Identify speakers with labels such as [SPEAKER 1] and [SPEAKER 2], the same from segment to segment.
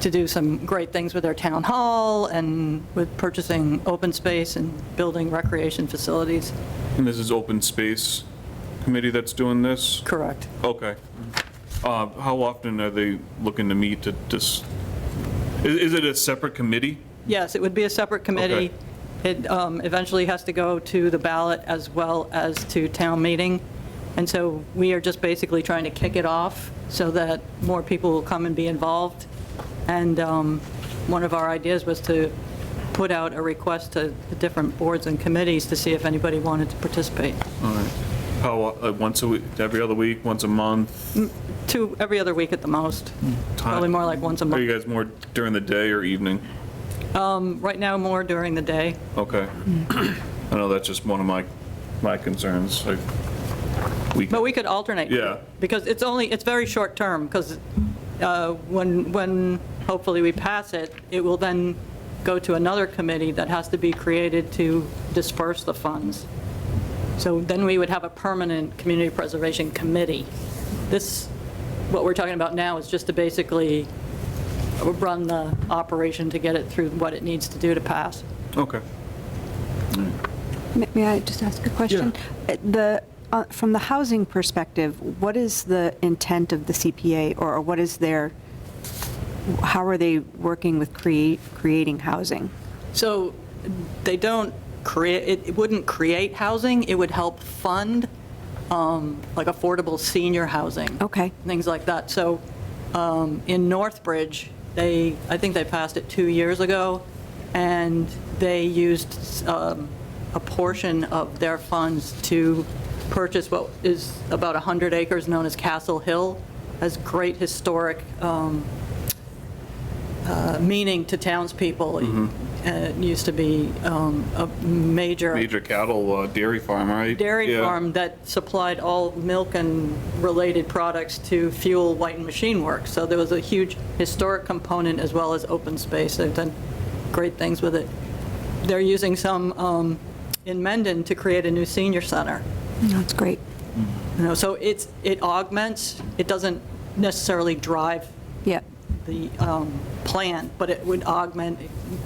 [SPEAKER 1] to do some great things with our town hall and with purchasing open space and building recreation facilities.
[SPEAKER 2] And this is open space committee that's doing this?
[SPEAKER 1] Correct.
[SPEAKER 2] Okay. Uh, How often are they looking to meet to just, is it a separate committee?
[SPEAKER 1] Yes, it would be a separate committee. It um, eventually has to go to the ballot as well as to town meeting. And so we are just basically trying to kick it off so that more people will come and be involved. And um, one of our ideas was to put out a request to the different boards and committees to see if anybody wanted to participate.
[SPEAKER 2] All right. How, uh, once a week, every other week, once a month?
[SPEAKER 1] Two, every other week at the most, probably more like once a
[SPEAKER 2] Are
[SPEAKER 1] month.
[SPEAKER 2] Hmm. you guys more during the day or evening?
[SPEAKER 1] Right now, more during the day.
[SPEAKER 2] Okay.
[SPEAKER 1] Mm.
[SPEAKER 2] I know that's just one of my, my concerns, like, we,
[SPEAKER 1] But we could alternate.
[SPEAKER 2] Yeah.
[SPEAKER 1] Because it's only, it's very short-term, because uh, when, when hopefully we pass it, it will then go to another committee that has to be created to disperse the funds. So then we would have a permanent community preservation committee. This, what we're talking about now is just to basically run the operation to get it through what it needs to do to pass.
[SPEAKER 2] okay.
[SPEAKER 3] May may I just ask a question? Uh, The, uh, from the housing perspective, what is the intent of the CPA, or or what is their, how are they working with create, creating housing?
[SPEAKER 1] So they don't create, it- it wouldn't create housing, it would help fund, um, like, affordable senior housing.
[SPEAKER 3] Okay.
[SPEAKER 1] Things like that. So um, in Northbridge, they, I think they passed it two years ago, and they used um, a portion of their funds to purchase what is about 100 acres known as Castle Hill, as great historic um, uh, meaning to townspeople. Uh, It used to be um, a major
[SPEAKER 2] Major cattle uh, dairy farm, right?
[SPEAKER 1] dairy
[SPEAKER 2] Yeah.
[SPEAKER 1] farm that supplied all milk and related products to fuel White and Machine Works. So there was a huge historic component as well as open space. They've done great things with it. They're using some um, in Mendon to create a new senior center.
[SPEAKER 3] That's great.
[SPEAKER 1] You know, so it's, it augments, it doesn't necessarily drive
[SPEAKER 3] Yeah,
[SPEAKER 1] the um, plan, but it would augment,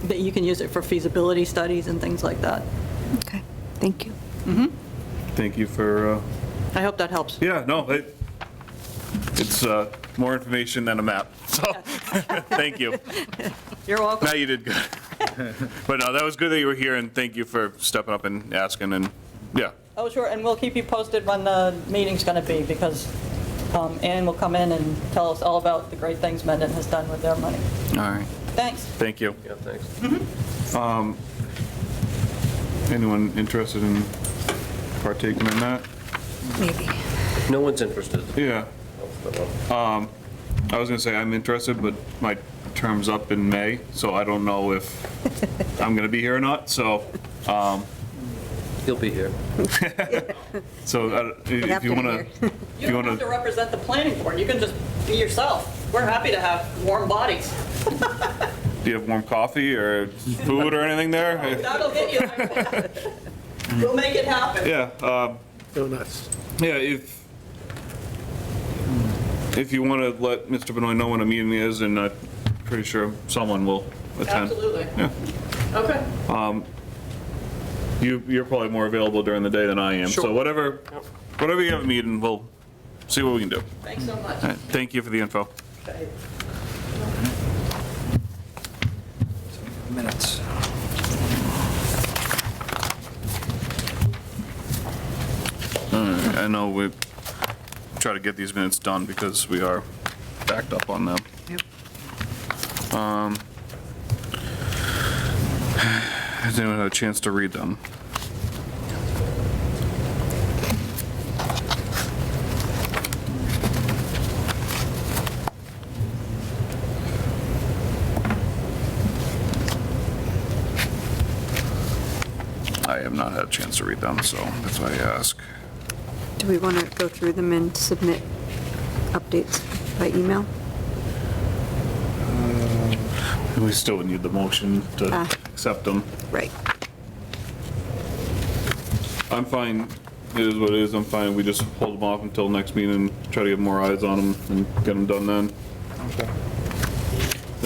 [SPEAKER 1] that you can use it for feasibility studies and things like that.
[SPEAKER 3] okay, thank you.
[SPEAKER 2] Thank you for, uh,
[SPEAKER 1] I hope that helps.
[SPEAKER 2] Yeah, no, it, it's uh, more information than a map, so, thank you.
[SPEAKER 1] You're welcome.
[SPEAKER 2] Now you did good. But no, that was good that you were here, and thank you for stepping up and asking, and, yeah.
[SPEAKER 1] Oh, sure, and we'll keep you posted when the meeting's going to be, because um, Ann will come in and tell us all about the great things Mendon has done with their money.
[SPEAKER 2] All right.
[SPEAKER 1] Thanks.
[SPEAKER 2] Thank you.
[SPEAKER 4] Yeah, thanks.
[SPEAKER 2] Anyone interested in partaking in that?
[SPEAKER 4] No one's interested.
[SPEAKER 2] Yeah. I was gonna say I'm interested, but my term's up in May, so I don't know if I'm gonna be here or not, so,
[SPEAKER 4] He'll be here.
[SPEAKER 2] so uh, if
[SPEAKER 5] have to be
[SPEAKER 2] you wanna,
[SPEAKER 5] here.
[SPEAKER 2] if
[SPEAKER 1] You
[SPEAKER 2] you
[SPEAKER 1] don't have to
[SPEAKER 2] wanna,
[SPEAKER 1] represent the planning board, you can just be yourself. We're happy to have warm bodies.
[SPEAKER 2] do you have warm coffee or food or anything there?
[SPEAKER 1] That'll get you. We'll make it happen.
[SPEAKER 2] Yeah, um,
[SPEAKER 6] Donuts.
[SPEAKER 2] yeah, if, if you want to let Mr. Benoit know when a meeting is, and I'm pretty sure someone will attend.
[SPEAKER 1] Absolutely.
[SPEAKER 2] Yeah.
[SPEAKER 1] Okay.
[SPEAKER 2] You, you're probably more available during the day than I am, so
[SPEAKER 4] Sure.
[SPEAKER 2] whatever, whatever you have a meeting, we'll see what we can do.
[SPEAKER 1] Thanks so much.
[SPEAKER 2] All right, Thank you for the info.
[SPEAKER 1] Okay.
[SPEAKER 4] Minutes.
[SPEAKER 2] I know we try to get these minutes done because we are backed up on them.
[SPEAKER 3] Yep.
[SPEAKER 2] Um, Has anyone had a chance to read them? I have not had a chance to read them, so that's why I ask.
[SPEAKER 3] Do we want to go through them and submit updates by email?
[SPEAKER 2] We still would need the motion to
[SPEAKER 3] Ah.
[SPEAKER 2] accept them.
[SPEAKER 3] Right.
[SPEAKER 2] I'm fine, it is what it is, I'm fine, we just hold them off until next meeting, and try to get more eyes on them and get them done then.